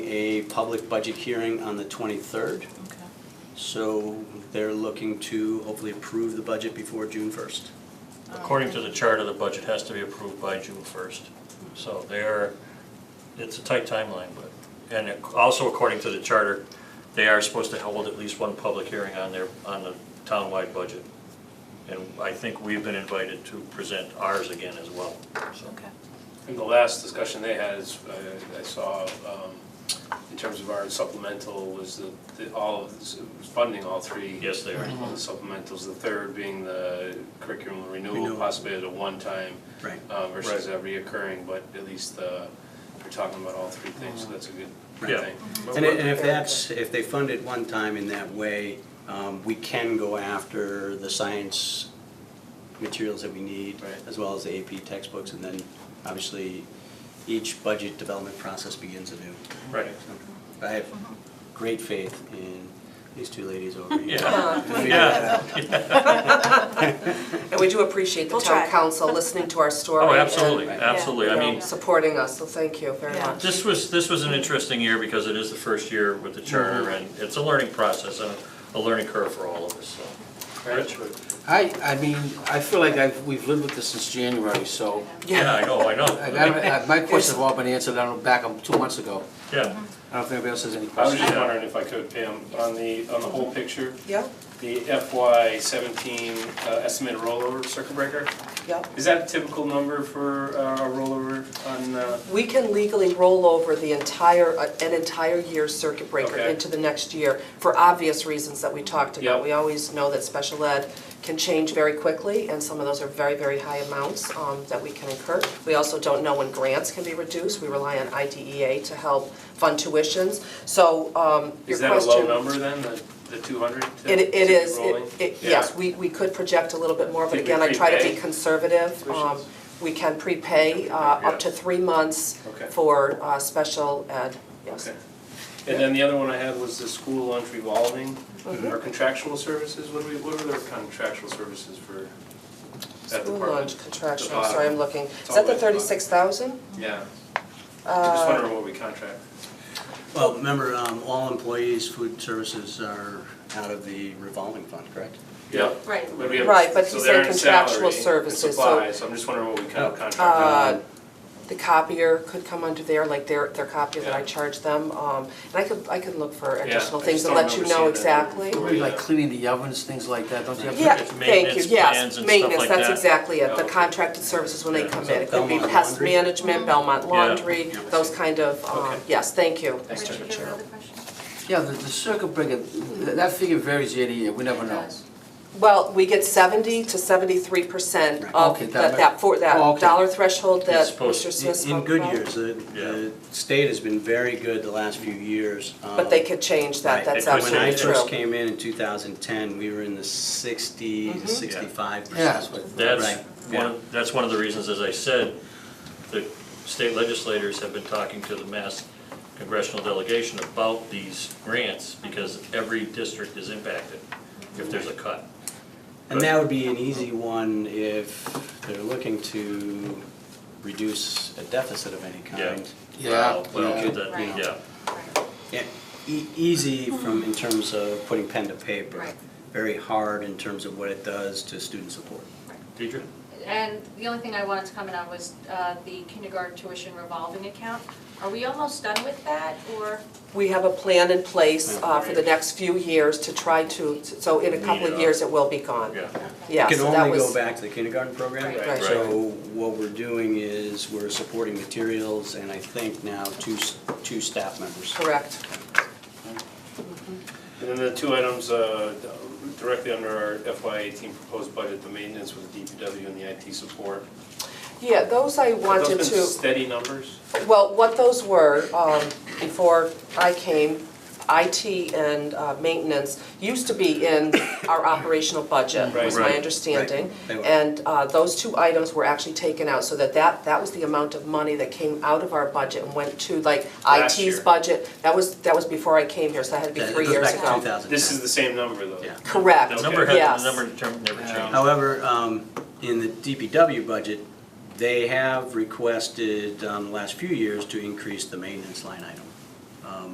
a public budget hearing on the 23rd. Okay. So they're looking to hopefully approve the budget before June 1st. According to the charter, the budget has to be approved by June first. So they're, it's a tight timeline, but, and it- also according to the charter, they are supposed to hold at least one public hearing on their, on the townwide budget. And I think we've been invited to present ours again as well, so. Okay. And the last discussion they had is, uh, I saw, um, in terms of our supplemental was the, the, all of, this- it was funding all three. Yes, they are. of the Supplementals, the third being the curriculum renewal, Renewal. possibly at a one-time Right. uh, versus Right. a reoccurring, but at least, uh, we're talking about all three things, so that's a good Right. thing. And i- and if that's, if they fund it one time in that way, um, we can go after the science materials that we need, Right. as well as the AP textbooks, and then obviously each budget development process begins anew. Right. I have great faith in these two ladies over here. Yeah. And we do appreciate the We'll town try. council listening to our story. Oh, absolutely, and, absolutely. I you know, mean, Supporting us, so thank you very Yeah. much. This was, this was an interesting year because it is the first year with the charter and it's a learning process and a learning curve for all of us, so. Rich? I, I mean, I feel like I've, we've lived with this since January, so Yeah, I know, I I know. got, my questions have all been answered, I don't, back um, two months ago. Yeah, I don't know if anybody else has any I was questions. just wondering if I could, Pam, on the, on the whole picture, Yep, the FY seventeen uh, estimated rollover circuit breaker, yep. is that a typical number for uh, a rollover on, uh, We can legally roll over the entire, uh, an entire year's circuit breaker Okay. into the next year for obvious reasons that we talked about. Yep. We always know that special ed can change very quickly, and some of those are very, very high amounts um, that we can incur. We also don't know when grants can be reduced. We rely on IDEA to help fund tuitions. So um, your is that a low question number then, the, the two hundred? It, it is, it, it, yes, we, we could project a little bit more, but Did we again, I try to be prepay conservative. Um, tuitions? We can prepay, uh, up to three months Okay. for, uh, special ed, yes. Okay. And then the other one I had was the school lunch revolving, Mm-hmm. or contractual services, what do we, what are their contractual services for that School department? lunch contractual, The sorry, bottom. I'm looking, It's is that the all the way at the bottom. thirty-six thousand? Yeah. Uh, I'm just wondering what we contract. Well, remember, um, all employees' food services are out of the revolving fund, correct? Yeah. Right. But we have- Right, but he so said they're in contractual salary and services, so- Supplies, so I'm just wondering what we kind of Uh, Um, contract. The copier could come under there, like their, their copier that I Yeah. charge them, um, and I could, I could look for additional I things just and don't let you remember know seeing that. exactly. Maybe like cleaning the ovens, things like that, don't you have? to- Yeah, It's thank you, maintenance plans yes, and stuff maintenance, like that's that. exactly it, the Yeah. contracted services when they come in. It could be Belmont pest Laundry? management, Belmont Yeah. Laundry, those kind of, um, Okay. yes, thank you. Thanks, Mr. Judge. Richard, you have Chair. another question? Yeah, the, the circuit breaker, th- that figure varies year to year, we never know. Well, we get seventy to seventy-three percent Right. of Okay, that, that- that, for, Oh, that okay. dollar threshold that It's supposed- Mr. Smith In- spoke In good about. years, the, the state has been very good the last few years. But they could change that, Right. that's They could When I absolutely change true. first came in in 2010, we were in the 60 Mm-hmm. to 65 Yeah, that's percent. what, that's Right, one, yeah. of- that's one of the reasons, as I said, the state legislators have been talking to the mass congressional delegation about these grants because every district is impacted if there's a cut. And that would be an easy one if they're looking to reduce a deficit of any Yeah. kind. yeah, Well, You could, that- you know. yeah, Right. Yeah, e- easy from, in terms of putting pen to paper. Right. Very hard in terms of what it does to student support. Deidre? And the only thing I wanted to comment on was uh, the kindergarten tuition revolving account. Are we almost done with that, or? We have a plan in place, uh, for the next few years to try to, so in a couple Yeah. of years, it will be gone. Yeah. Yeah, It can so that only was. go back to the kindergarten program. Right. Right. So what we're doing is we're supporting materials and I think now two, s- two staff members. Correct. And then the two items uh, directly under our FY eighteen proposed budget, the maintenance with DPW and the IT support. Yeah, those I Have wanted those been to, steady numbers? well, what those were, um, before I came, IT and uh, maintenance used to be in our operational budget, was Right. my Right. understanding. They were. And uh, those two items were actually taken out, so that that, that was the amount of money that came out of our budget and went to like Last IT's year. budget. That was, that was before I came here, so that had to be That- it three goes years back to ago. 2010. This is the same number though. Yeah. Correct, The yes. number had, the number term never changed. However, um, in the DPW budget, they have requested, um, the last few years to increase the maintenance line item.